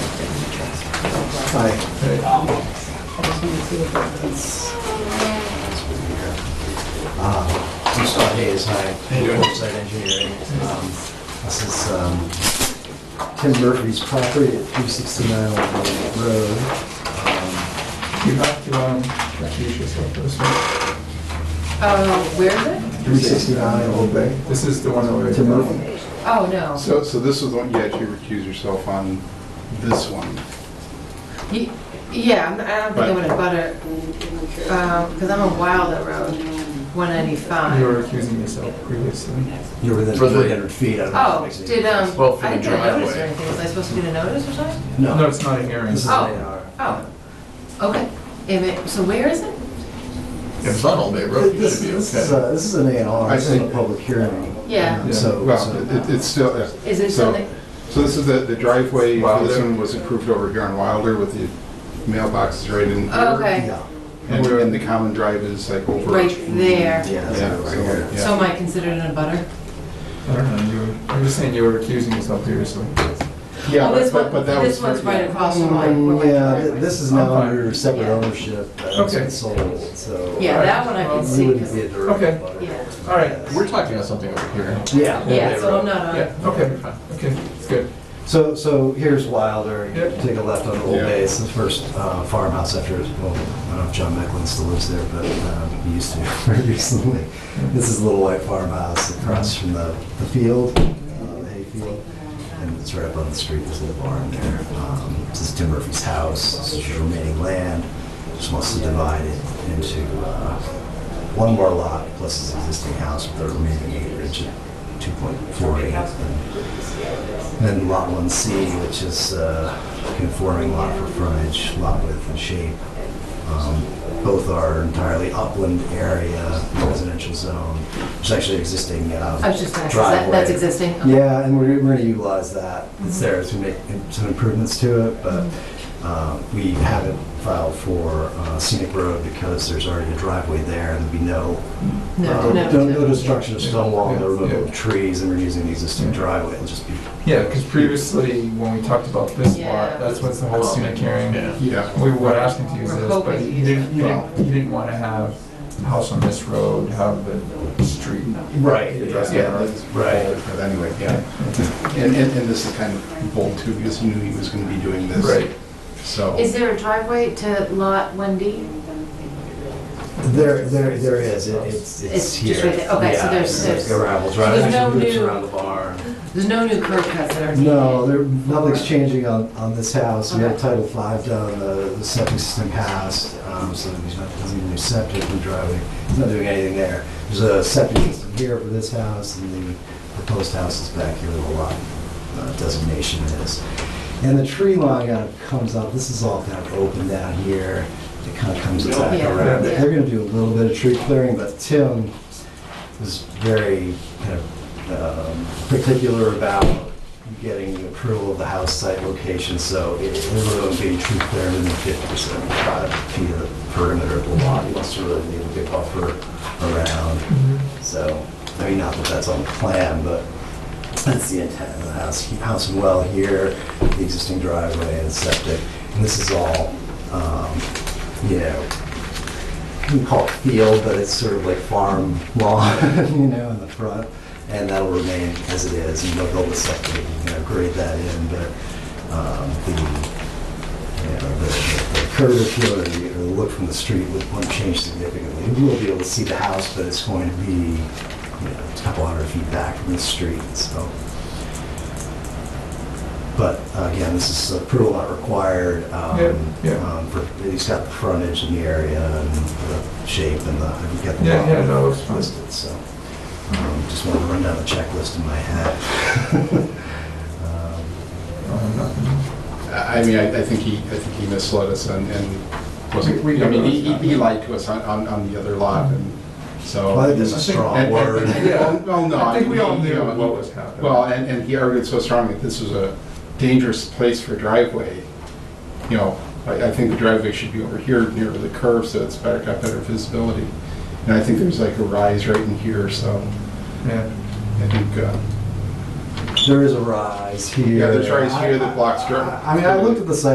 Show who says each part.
Speaker 1: Aye.
Speaker 2: Um,
Speaker 3: I just want to see if it's,
Speaker 1: Ah, I'm Scott Hayes, hi. Site engineering. Um, This is um, Tim Murphy's property at 369 Old Main Road. Um,
Speaker 2: You have to, um, recuse yourself for this one.
Speaker 3: oh, where is it?
Speaker 1: 369 Old Bay.
Speaker 2: This is the one over
Speaker 1: Tim
Speaker 2: there.
Speaker 1: Murphy.
Speaker 3: Oh, no.
Speaker 4: So, so this is the one, you actually recuse yourself on this one.
Speaker 3: Ye- Yeah, I'm- I don't think I'm gonna butter, um, because I'm on Wilder Road, 195.
Speaker 2: You were accusing yourself previously.
Speaker 1: You're within
Speaker 4: For the-
Speaker 1: 300 feet. I don't know if that
Speaker 3: Oh,
Speaker 1: makes any
Speaker 3: did, um,
Speaker 1: difference.
Speaker 4: Well, for
Speaker 3: I
Speaker 4: the
Speaker 3: didn't get a notice or
Speaker 4: driveway.
Speaker 3: anything. Was I supposed to get a notice or something?
Speaker 2: No,
Speaker 1: No,
Speaker 2: it's not a hearing.
Speaker 1: this is an
Speaker 3: um, Oh.
Speaker 1: AR.
Speaker 3: Oh, okay. If it- So where is it?
Speaker 4: It's not Old Bay Road, it
Speaker 1: This
Speaker 4: should be
Speaker 1: this is,
Speaker 4: okay.
Speaker 1: uh, this is an A and R,
Speaker 4: I
Speaker 1: it's not a
Speaker 4: see.
Speaker 1: public hearing.
Speaker 3: Yeah.
Speaker 1: Um, So,
Speaker 4: Well,
Speaker 1: so-
Speaker 4: it- it's still, yeah.
Speaker 3: Is it
Speaker 4: So-
Speaker 3: something,
Speaker 4: So this is the, the driveway, for this
Speaker 2: Wilder.
Speaker 4: one was approved over here on Wilder with the mailboxes right in
Speaker 3: Oh,
Speaker 4: here.
Speaker 3: okay.
Speaker 1: yeah,
Speaker 4: And we're in the common drive is like over.
Speaker 3: right there?
Speaker 1: yeah, that's
Speaker 4: Yeah,
Speaker 1: right
Speaker 4: so,
Speaker 1: here.
Speaker 4: yeah.
Speaker 3: So am I considered in a butter?
Speaker 2: I don't know, you were, I'm just saying you were accusing yourself previously.
Speaker 4: Yeah,
Speaker 3: Oh, this
Speaker 4: but- but,
Speaker 3: one-
Speaker 4: but that was.
Speaker 3: This one's
Speaker 4: for-
Speaker 3: right across from my, where my
Speaker 1: Mm, Yeah,
Speaker 3: driveway
Speaker 1: th-
Speaker 3: is.
Speaker 1: this is now
Speaker 2: Okay.
Speaker 1: under separate
Speaker 3: Yeah.
Speaker 1: ownership, uh, it's
Speaker 2: Okay.
Speaker 1: been sold, so.
Speaker 3: Yeah, that one I can
Speaker 1: You
Speaker 3: see,
Speaker 1: wouldn't
Speaker 3: 'cause-
Speaker 1: be a direct
Speaker 2: Okay.
Speaker 1: abutter.
Speaker 3: yeah,
Speaker 2: All right,
Speaker 5: We're talking about something over here.
Speaker 1: Yeah.
Speaker 3: yeah, so I'm not
Speaker 2: yeah,
Speaker 3: on,
Speaker 2: okay, okay, it's good.
Speaker 1: So, so here's Wilder, you
Speaker 2: Yep.
Speaker 1: take a left on Old
Speaker 4: Yeah.
Speaker 1: Bay, it's the first uh, farmhouse after, well, I don't know if John Mecklin still lives there, but um, he used to very recently. This is a Little White Farmhouse across from the the field, uh, the hayfield, and it's right up on the street, there's a little barn there. Um, This is Tim Murphy's house, this is his remaining land, just wants to divide it into uh, one more lot plus his existing house with the remaining acreage at 2.48. And then Lot 1C, which is uh, conforming lot for frontage, lot width and shape. Um, Both are entirely upland area, residential zone. There's actually existing um,
Speaker 3: I was just gonna, ask, is that-
Speaker 1: driveway.
Speaker 3: that's existing? Oh, Okay.
Speaker 1: Yeah, and we're, we're gonna utilize that. It's there, it's gonna make some improvements to it, but um, we haven't filed for uh, scenic road because there's already a driveway there and there'll be no
Speaker 3: No,
Speaker 1: um,
Speaker 3: no,
Speaker 1: No,
Speaker 3: no.
Speaker 1: no destruction of stone wall, no
Speaker 2: Yeah,
Speaker 1: removal
Speaker 2: yeah.
Speaker 1: of trees, and we're using the existing
Speaker 2: Yeah.
Speaker 1: driveway, it'll just be.
Speaker 2: Yeah, because previously, when we talked about this
Speaker 3: Yeah.
Speaker 2: part, that's what's the whole scenic hearing.
Speaker 5: Yeah.
Speaker 4: Yeah,
Speaker 2: We were asking to use
Speaker 3: We're
Speaker 2: this,
Speaker 3: hoping
Speaker 2: but
Speaker 3: to
Speaker 2: you
Speaker 3: use
Speaker 2: didn't, you
Speaker 4: Well-
Speaker 2: didn't, you didn't want to have house on this road, have the street.
Speaker 1: Right.
Speaker 2: address
Speaker 4: yeah,
Speaker 2: that.
Speaker 4: that's
Speaker 1: Right.
Speaker 4: bold, but anyway, yeah. And, and, and this is kind of bold too, because he knew he was gonna be doing this.
Speaker 2: Right.
Speaker 4: So.
Speaker 3: Is there a driveway to lot 1D?
Speaker 1: There, there, there is, It- it's, it's
Speaker 3: It's
Speaker 1: here.
Speaker 3: just right there. Okay, so
Speaker 1: Yeah,
Speaker 3: there's-
Speaker 1: it's
Speaker 3: there's-
Speaker 1: a gravel drive,
Speaker 3: there's no
Speaker 1: actually loops
Speaker 3: new-
Speaker 1: around the barn.
Speaker 3: There's no new curb cuts that are needed?
Speaker 1: No, there, nothing's changing on, on this house. We have
Speaker 3: Okay.
Speaker 1: Title V done, the the septic system passed, um, so there's not, doesn't even do septic, we driveway, it's not doing anything there. There's a septic system here for this house, and the proposed house is back here with a lot uh, designation is. And the tree line kind of comes up, this is all kind of open down here, it kind of comes back
Speaker 3: Yeah,
Speaker 1: around.
Speaker 3: yeah.
Speaker 1: They're gonna do a little bit of tree clearing, but Tim was very kind of um, particular about getting the approval of the house site location, so it it really would be true clear within fifty to seventy-five feet of the perimeter of the lot, you also really need a big buffer around,
Speaker 2: Mm-hmm.
Speaker 1: so, I mean, not that that's on the plan, but that's the intent of the house, house and well here, the existing driveway and septic, and this is all, um, you know, we call it field, but it's sort of like farm lawn, you know, in the front, and that'll remain as it is, and they'll build a septic, you know, grade that in, but um, the, you know, the- the the curvature or the or the look from the street would- won't change significantly. You will be able to see the house, but it's going to be, you know, a couple hundred feet back from the street, so. But uh, again, this is approval not required. um,
Speaker 2: Yeah, yeah.
Speaker 1: um, for- He's got the frontage in the area and the shape and the, you've got the.
Speaker 2: Yeah,
Speaker 1: lot
Speaker 2: yeah, no, it's fine.
Speaker 1: Listed, so, um, just wanted to run down the checklist in my head. Um,
Speaker 4: Oh,
Speaker 2: Um, nothing.
Speaker 4: I I mean, I, I think he, I think he misled us and, and wasn't,
Speaker 2: We- we
Speaker 4: I mean,
Speaker 2: know
Speaker 4: he,
Speaker 2: that's
Speaker 4: he- he
Speaker 2: not-
Speaker 4: lied to us on, on, on the other lot and so.
Speaker 1: Well, I think that's a
Speaker 4: And-
Speaker 1: strong
Speaker 4: and-
Speaker 1: word.
Speaker 4: and- well, Well, Oh, no.
Speaker 2: I think we
Speaker 4: mean,
Speaker 2: all
Speaker 4: he,
Speaker 2: knew
Speaker 4: you know,
Speaker 2: what was happening.
Speaker 4: Well, and, and he argued so strongly that this was a dangerous place for driveway. You know, I, I think the driveway should be over here near the curve, so it's better, got better visibility. And I think there's like a rise right in here, so
Speaker 2: Yeah.
Speaker 4: I think, uh,
Speaker 1: There is a rise here.
Speaker 4: Yeah, there's a rise here that blocks dirt.
Speaker 1: I I mean, I looked at the site